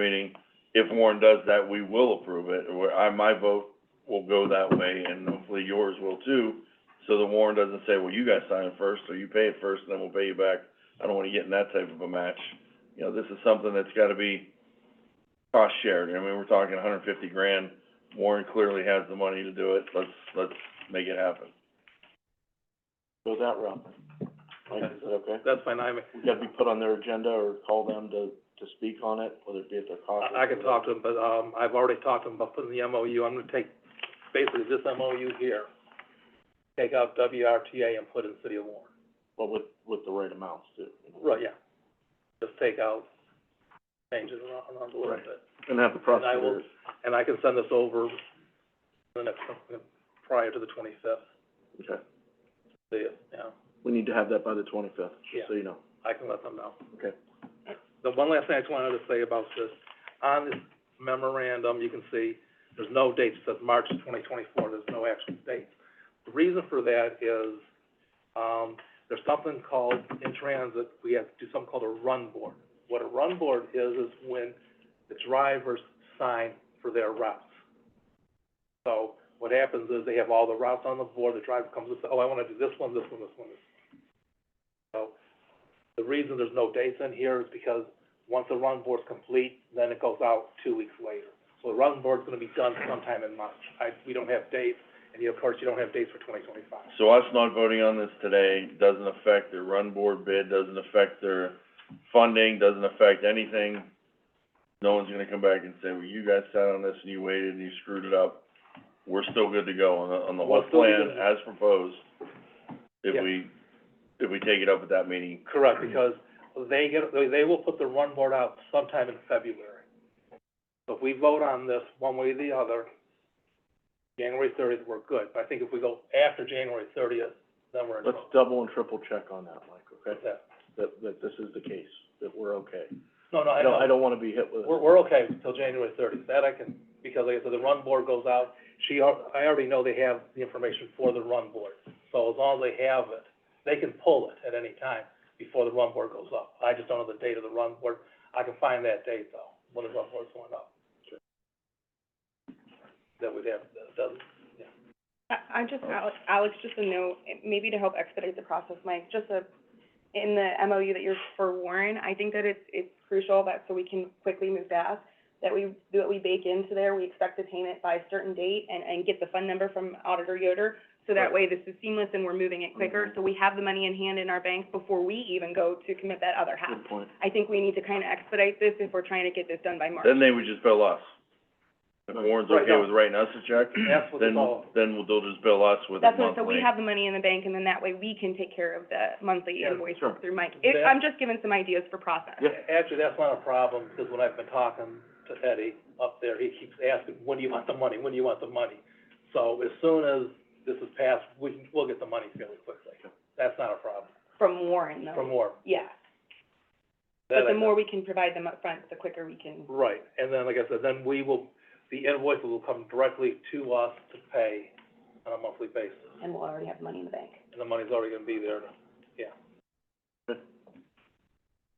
meaning if Warren does that, we will approve it, or I, my vote will go that way, and hopefully yours will too, so the Warren doesn't say, well, you guys sign it first, or you pay it first, and then we'll pay you back. I don't wanna get in that type of a match. You know, this is something that's gotta be cost shared, I mean, we're talking hundred and fifty grand, Warren clearly has the money to do it, let's, let's make it happen. go that route. Mike, is that okay? That's fine, I, We gotta be put on their agenda or call them to, to speak on it, whether it be at their conference. I can talk to him, but, um, I've already talked to him about putting the MOU, I'm gonna take basically this MOU here, take out WRTA and put in City of Warren. But with, with the right amounts too. you know. Right, yeah. Just take out, change it around, around a little Right. bit. And have the And I will- prosecutors. And I can send this over the next, prior to the twenty-fifth, Okay, see it, yeah. we need to have that by the twenty-fifth, Yeah. just so you know. I can let them know. Okay. The one last thing I just wanted to say about this, on this memorandum, you can see, there's no date, it says March twenty twenty-four, there's no actual date. The reason for that is, um, there's something called, in transit, we have to do something called a run board. What a run board is, is when the drivers sign for their routes. So, what happens is they have all the routes on the board, the driver comes and says, oh, I wanna do this one, this one, this one, this one. So, the reason there's no dates in here is because once the run board's complete, then it goes out two weeks later. So the run board's gonna be done sometime in March. I, we don't have dates, and you, of course, you don't have dates for twenty twenty-five. So us not voting on this today doesn't affect their run board bid, doesn't affect their funding, doesn't affect anything. No one's gonna come back and say, well, you guys sat on this and you waited and you screwed it up. We're still good to go on the, on the whole We're still good plan to go. as proposed. If Yeah. we, if we take it up at that meeting, Correct, because they get, they, they will put the run board out sometime in February. So if we vote on this one way or the other, January thirtieth, we're good. But I think if we go after January thirtieth, then we're in Let's trouble. double and triple check on that, Mike, okay? Yeah. That, that this is the case, that we're okay. No, no, I I don't, I know, don't wanna be hit with, we're, we're okay until January thirtieth, that I can, because like I said, the run board goes out. She, al- I already know they have the information for the run board, so as long as they have it, they can pull it at any time before the run board goes up. I just don't know the date of the run board, I can find that date though, when the run board's going up. That would have, that doesn't, I, I just, Alex, Alex, just a note, maybe to help expedite the process, Mike, just a, in the MOU that you're for Warren, I think that it's, it's crucial that, so we can quickly move fast, that we, that we bake into there, we expect the payment by a certain date and, and get the fund number from Auditor Yoder. So that way this is seamless and we're moving it Mm-hmm. quicker, so we have the money in hand in our bank before we even go to commit that other half. good point. I think we need to kind of expedite this if we're trying to get this done by March. then they would just bill us. If Warren's Right, okay no. with writing us a check, that's what then, it's all, then we'll, they'll just bill us with it That's monthly. what, so we have the money in the bank, and then that way we can take care of the monthly Yeah, invoice sure. through Mike. It, That- I'm just giving some ideas for process. Yeah. Actually, that's not a problem, because when I've been talking to Eddie up there, he keeps asking, when do you want the money, when do you want the money? So as soon as this is passed, we can, we'll get the money fairly quickly. That's not a problem, From Warren, though. for more. Yeah, That but the I- more we can provide them up front, the quicker we can. Right, and then, like I said, then we will, the invoice will come directly to us to pay on a monthly basis, And we'll already have the money in the bank. and the money's already gonna be there, yeah. Good.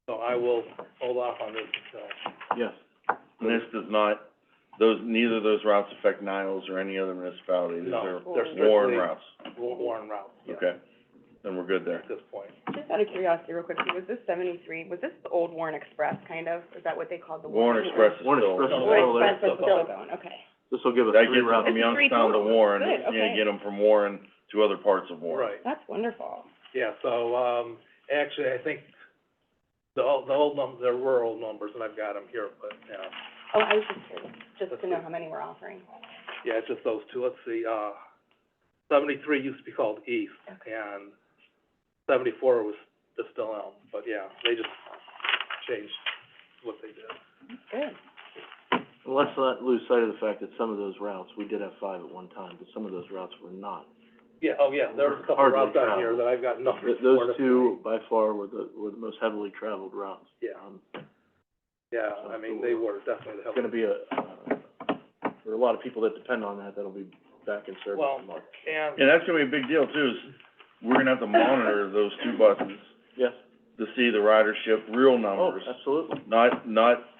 So I will hold off on this until Yes, And this does not, those, neither of those routes affect Niles or any other municipality, these No, are they're Warren strictly- routes, Wa- Warren route, yeah, okay? Then we're good there. at this point. Just out of curiosity, real quick, was this seventy-three, was this the old Warren Express, kind of? Is that what they called the Warren Warren? Express is Warren still, Express is Warren still there. Express was still going, okay. This'll give us that three gets them routes. from It's three Youngstown to total. Warren, Good, it's gonna okay. get them from Warren to other parts of Warren. Right, That's wonderful. yeah, so, um, actually, I think the old, the old num, there were old numbers, and I've got them here, but, uh, you know, Oh, I was just curious, just to know how many we're offering. yeah, it's just those two, let's see, uh, seventy-three used to be called East, and seventy-four was the Still Elm, but yeah, they just changed what they did. Good. And Let's not lose sight of the fact that some of those routes, we did have five at one time, but some of those routes were not. Yeah, oh, yeah, there was a couple Hardly routes out here traveled. that I've got numbers Th- for. Those to- two by far were the, were the most heavily traveled routes. Yeah, Um, yeah, I mean, they were definitely the It's help. gonna be a, uh, for a lot of people that depend on that, that'll be back in service Well, in March. and, And that's gonna be a big deal too, is we're gonna have to monitor those two buses Yes, to see the ridership, real oh, numbers, absolutely. not, not